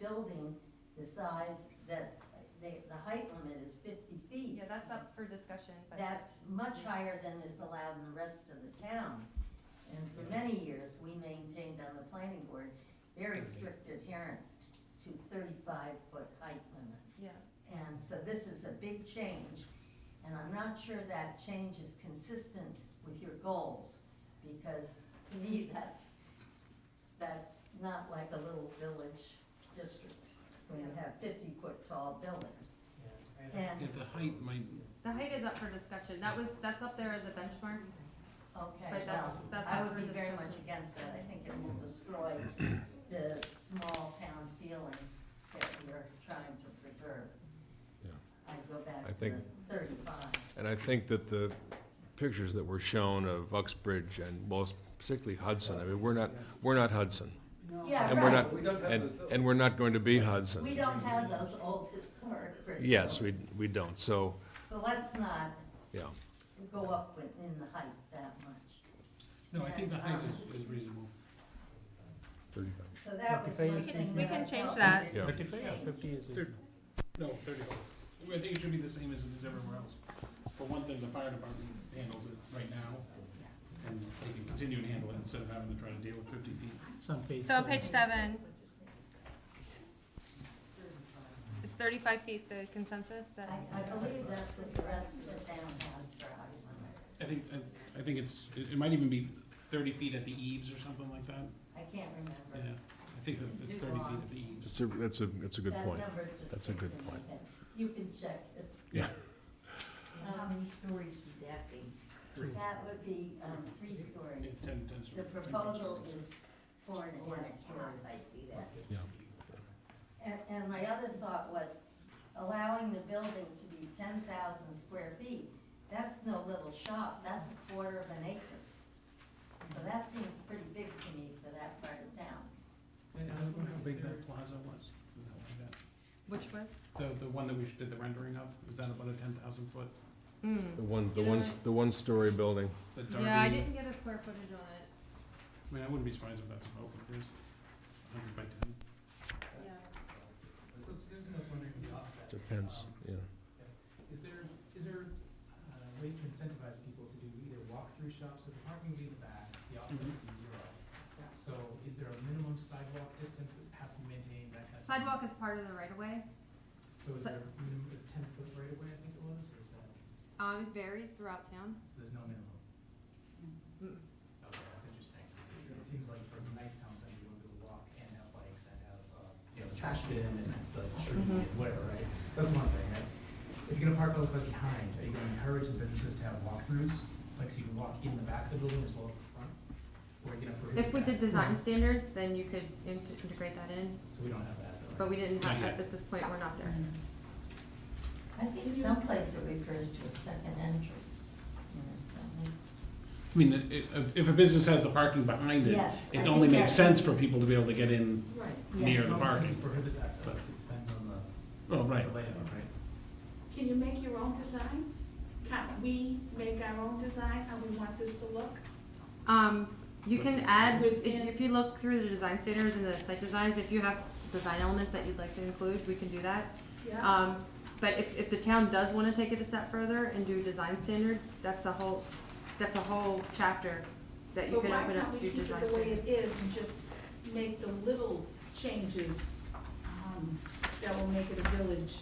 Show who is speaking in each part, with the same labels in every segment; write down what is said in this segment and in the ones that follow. Speaker 1: building the size that, they, the height limit is fifty feet.
Speaker 2: Yeah, that's up for discussion, but.
Speaker 1: That's much higher than is allowed in the rest of the town. And for many years, we maintained on the planning board very strict adherence to thirty-five foot height limit.
Speaker 2: Yeah,
Speaker 1: And so this is a big change, and I'm not sure that change is consistent with your goals, because to me, that's, that's not like a little village district, when you have fifty-foot tall buildings. And-
Speaker 3: Yeah, the height might-
Speaker 2: the height is up for discussion. That was, that's up there as a benchmark.
Speaker 1: Okay,
Speaker 2: But that's-
Speaker 1: well,
Speaker 2: that's
Speaker 1: I
Speaker 2: up
Speaker 1: would
Speaker 2: for
Speaker 1: be very much
Speaker 2: discussion.
Speaker 1: against that, I think it will destroy the small town feeling that we're trying to preserve.
Speaker 4: Yeah.
Speaker 1: I'd go back
Speaker 4: I
Speaker 1: to the
Speaker 4: think-
Speaker 1: thirty-five.
Speaker 4: And I think that the pictures that were shown of Uxbridge and most particularly Hudson, I mean, we're not, we're not Hudson.
Speaker 1: Yeah,
Speaker 4: And we're
Speaker 1: right.
Speaker 4: not, and, and we're not going to be
Speaker 1: We
Speaker 4: Hudson.
Speaker 1: don't have those old historic bridges.
Speaker 4: Yes, we, we don't, so,
Speaker 1: So let's not
Speaker 4: yeah.
Speaker 1: go up with- in the height that much.
Speaker 3: No, I think the height is, is reasonable.
Speaker 1: So that was
Speaker 5: Fifty-five
Speaker 1: one
Speaker 5: is
Speaker 1: thing.
Speaker 5: We
Speaker 2: can
Speaker 1: I
Speaker 2: change
Speaker 1: felt
Speaker 2: that.
Speaker 1: we
Speaker 4: Yeah.
Speaker 1: didn't
Speaker 5: Thirty-five or
Speaker 1: change.
Speaker 5: fifty is
Speaker 3: Thirty. No, thirty-five. I think it should be the same as it is everywhere else. For one thing, the fire department handles it right now, and they can continue to handle it instead of having to try to deal with fifty feet.
Speaker 5: some page.
Speaker 6: So on page seven. Is thirty-five feet the consensus that?
Speaker 1: I, I believe that's what the rest of the town has for height limit.
Speaker 3: I think, I, I think it's, it, it might even be thirty feet at the eaves or something like that,
Speaker 1: I can't
Speaker 3: yeah.
Speaker 1: remember.
Speaker 3: I think that it's thirty feet at the eaves.
Speaker 4: It's a, that's a, that's a good
Speaker 1: That
Speaker 4: point.
Speaker 1: number just
Speaker 4: That's a
Speaker 1: sticks
Speaker 4: good
Speaker 1: in my
Speaker 4: point.
Speaker 1: head. You can check it.
Speaker 4: Yeah.
Speaker 1: Um,
Speaker 7: How many stories would that be?
Speaker 3: Three.
Speaker 1: That would be, um, three stories.
Speaker 3: Yeah, ten, ten.
Speaker 1: The proposal is four and a
Speaker 7: Or
Speaker 1: half
Speaker 7: a story,
Speaker 1: stories.
Speaker 7: I see that.
Speaker 4: Yeah.
Speaker 1: And, and my other thought was allowing the building to be ten thousand square feet, that's no little shop, that's a quarter of an acre. So that seems pretty big to me for that part of town.
Speaker 3: Is that how big that plaza was? Is that like that?
Speaker 6: Which was?
Speaker 3: The, the one that we did the rendering of, is that about a ten thousand foot,
Speaker 6: Mm.
Speaker 3: Hmm.
Speaker 4: The one, the one, the one-story building.
Speaker 3: the Darby?
Speaker 2: Yeah, I didn't get a square footage on it.
Speaker 3: I mean, I wouldn't be surprised if that's about what it is, hundred by ten.
Speaker 4: Depends, yeah.
Speaker 5: Is there, is there uh, ways to incentivize people to do either walk-through shops, because the parking would be in the back, the offset would be zero. So is there a minimum sidewalk distance that has to be maintained, that kind of? thing?
Speaker 2: Sidewalk is part of the right of way.
Speaker 5: So is
Speaker 2: si-
Speaker 5: there a minimum, is ten foot right away, I think it was, or is that,
Speaker 2: Um, it varies throughout town.
Speaker 5: so there's no minimum?
Speaker 2: Mm.
Speaker 5: Okay, that's interesting, 'cause it- it seems like for a nice town center, you want people to walk and have bikes and have, uh, you know, trash bin and the tree
Speaker 2: Mhm.
Speaker 5: and whatever, right? So that's one thing, right? If you're gonna park all the way behind, are you gonna encourage the businesses to have walkthroughs? Like, so you can walk in the back of the building as well as the front? Or are you gonna prohibit
Speaker 2: If we did
Speaker 5: that?
Speaker 2: design standards, then you could int- integrate that in,
Speaker 5: So we don't have that, though.
Speaker 2: but we didn't have
Speaker 3: Not
Speaker 2: that
Speaker 3: yet.
Speaker 2: at this point, we're not there.
Speaker 1: I think someplace it refers to a second entrance, you know, so.
Speaker 3: I mean, it- it- if a business has the parking behind it,
Speaker 1: Yes, I
Speaker 3: it only
Speaker 1: think
Speaker 3: makes
Speaker 1: that-
Speaker 3: sense for people to be able to get in,
Speaker 5: Right.
Speaker 3: near
Speaker 1: Yes.
Speaker 3: the parking.
Speaker 5: Prohibit that, though,
Speaker 3: But-
Speaker 5: it depends on the
Speaker 3: oh,
Speaker 5: the
Speaker 3: right,
Speaker 5: layout, right?
Speaker 8: Can you make your own design? Can't we make our own design, how we want this to look?
Speaker 2: Um, you can add, if,
Speaker 8: Within-
Speaker 2: if you look through the design standards and the site designs, if you have design elements that you'd like to include, we can do that.
Speaker 8: Yeah,
Speaker 2: Um, but if, if the town does wanna take it a step further and do design standards, that's a whole, that's a whole chapter that you
Speaker 8: but
Speaker 2: could
Speaker 8: why
Speaker 2: open up
Speaker 8: can't
Speaker 2: to
Speaker 8: we
Speaker 2: do
Speaker 8: keep
Speaker 2: design
Speaker 8: it the way
Speaker 2: standards.
Speaker 8: it is and just make the little changes, um, that will make it a village?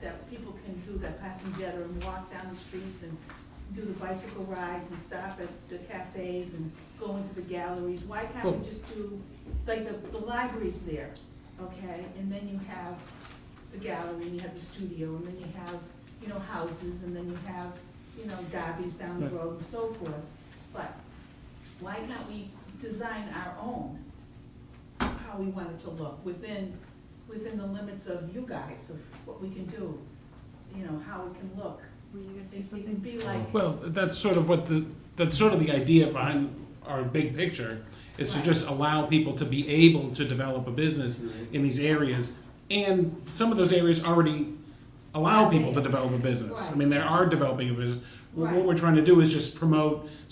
Speaker 8: That people can do that passenger and walk down the streets and do the bicycle rides and stop at the cafes and go into the galleries? Why can't
Speaker 3: Well-
Speaker 8: we just do, like, the, the library's there, okay, and then you have the gallery, and you have the studio, and then you have, you know, houses, and then you have, you know, Darby's down the
Speaker 3: Right.
Speaker 8: road and so forth. But why can't we design our own, how we want it to look, within, within the limits of you guys, of what we can do, you know, how it can look.
Speaker 2: Were you gonna
Speaker 8: It
Speaker 2: say
Speaker 8: it
Speaker 2: something?
Speaker 8: can be like,
Speaker 3: Well, that's sort of what the, that's sort of the idea behind our big picture, is to
Speaker 8: Right.
Speaker 3: just allow people to be able to develop a business in these areas. And some of those areas already allow people to develop a business. I
Speaker 8: Right.
Speaker 3: mean, they are developing a business. What
Speaker 8: Right.
Speaker 3: what we're trying to do is just promote